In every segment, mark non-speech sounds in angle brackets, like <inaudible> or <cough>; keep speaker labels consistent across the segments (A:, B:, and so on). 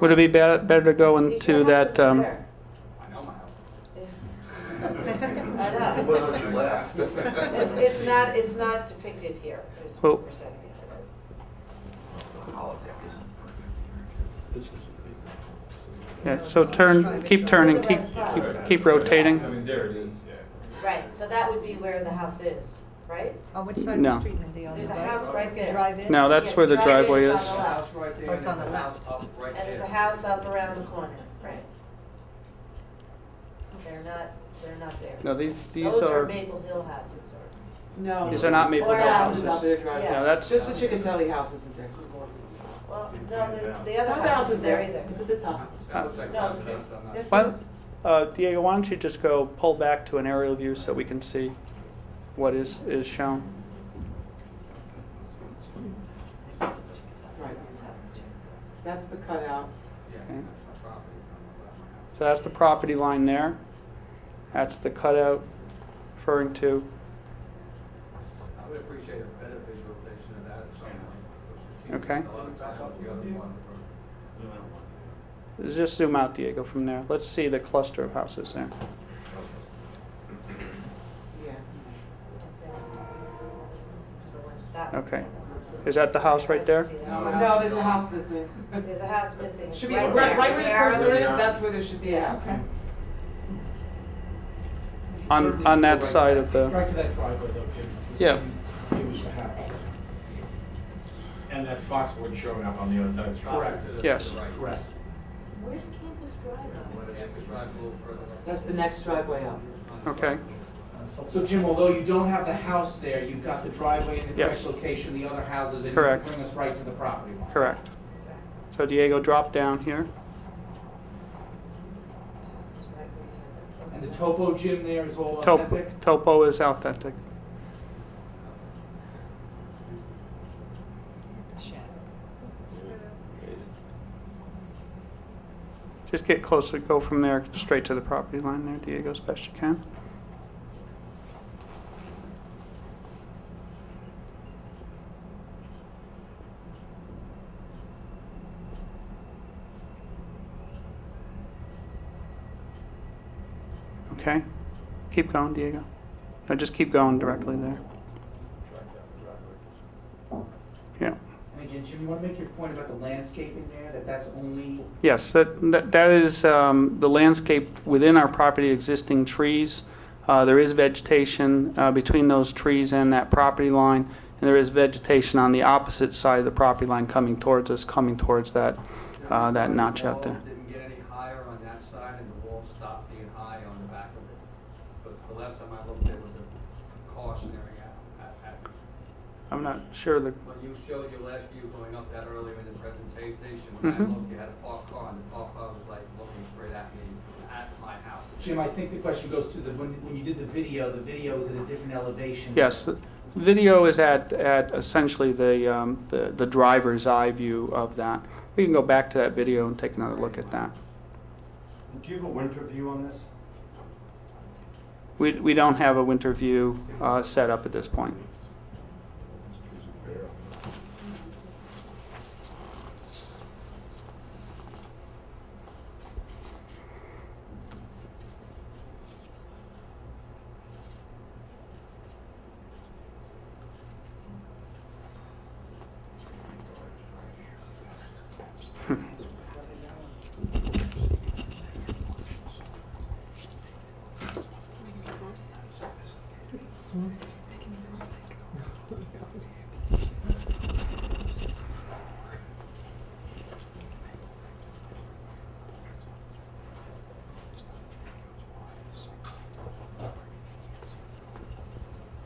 A: Would it be bet- better to go into that, um,
B: I know my house.
C: I know. It's, it's
B: <laughs>
C: not, it's not depicted here, is
A: Well-
C: what we're saying.
D: Holodeck isn't perfect
A: yeah, so turn, keep turning, keep, keep keep rotating?
B: I mean, there it is, yeah.
C: Right, so that would be where the house is, right?
E: On which side
A: No.
E: of the street, Mindy, on the
C: There's a
E: right?
C: house right
E: If
C: there.
E: you drive in?
A: No, that's where the
C: Yeah,
A: driveway
C: is on
A: is.
C: the left.
E: Oh, it's on the left.
C: And there's a house up around the corner, right? They're not, they're not there.
A: No, these, these
C: Those are
A: are,
C: Maple Hill houses, or,
F: No.
A: these are not Maple
C: Or
A: Hill
C: houses.
F: Up
A: houses.
F: there, drive-
C: Yeah.
A: No, that's,
F: Just the Chickatelli house isn't there.
C: well, no, the, the
F: What
C: other house
F: house
C: is there either.
F: It's at the top.
B: That looks like
C: No,
B: something
C: see.
B: else on that.
F: Yes, it
A: What?
F: is.
A: uh, Diego, why don't you just go pull back to an aerial view so we can see what is, is shown?
F: Right. That's the cutout.
B: Yeah, that's
A: Okay.
B: my property. I'm about my house.
A: So that's the property line there. That's the cutout referring to,
B: I would appreciate a better visualization of that at some point.
A: Okay.
B: A lot of times the other one from-
A: just zoom out, Diego, from there. Let's see the cluster of houses there.
F: Yeah.
C: That-
A: Okay. Is that the house right there?
F: No, there's a house missing.
C: There's a house missing. It's
F: Should be
C: right
F: right
C: there.
F: right where the
C: arrow
F: cursor is,
C: is.
F: that's where there should be a house.
A: On, on that side of the,
G: Right to that driveway though, Jim, it's the
A: Yeah.
G: same view as the house.
H: And that's Foxwood showing up on the other side of the street.
G: Correct.
B: to the- to
A: Yes.
B: the right.
G: Correct.
C: Where's Campus Drive?
B: Yeah, we drive a little further.
F: That's the next driveway up.
A: okay,
G: So Jim, although you don't have the house there, you've got the driveway in the
A: Yes.
G: correct location, the other houses, and you
A: Correct.
G: bring us right to the property line.
A: correct. So Diego, drop down here.
G: And the topo Jim there is all
A: Topo,
G: authentic?
A: topo is authentic.
E: Shadows.
A: Just get closer, go from there straight to the property line there, Diego, as best you can. Okay, keep going, Diego. No, just keep going directly there. Yeah,
G: And again, Jim, you want to make your point about the landscaping there, that that's only,
A: yes, that, that that is um, the landscape within our property, existing trees. Uh, There is vegetation uh, between those trees and that property line, and there is vegetation on the opposite side of the property line coming towards us, coming towards that, uh, that notch out there.
B: The wall Didn't get any higher on that side, and the wall stopped being high on the back of it. But the last time I looked, there was a cautionary at, at- at,
A: I'm not sure the,
B: when you showed your last view going up that earlier in the presentation, when I
A: Mhm.
B: looked, you had a parked car, and the parked car was like looking straight at me, at my house.
G: Jim, I think the question goes to the, when, when you did the video, the video is at a different elevation.
A: yes, the video is at, at essentially the, um, the the driver's eye view of that. We can go back to that video and take another look at that.
D: Do you have a winter view on this?
A: We, we don't have a winter view uh, set up at this point.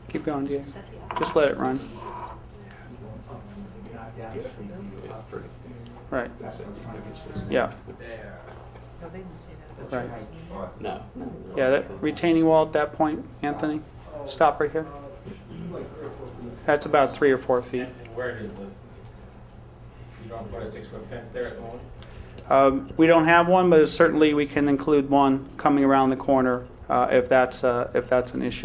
A: Keep going, Diego.
E: Is that the
A: Just let it run. Right, yeah,
B: There.
E: No, they didn't say that
A: Right.
E: about trees.
D: No.
A: yeah, that retaining wall at that point, Anthony, stop right here. That's about three or four feet.
H: And and where does the, you don't put a six-foot fence there at the moment?
A: Um, We don't have one, but certainly we can include one coming around the corner uh, if that's, uh, if that's an issue.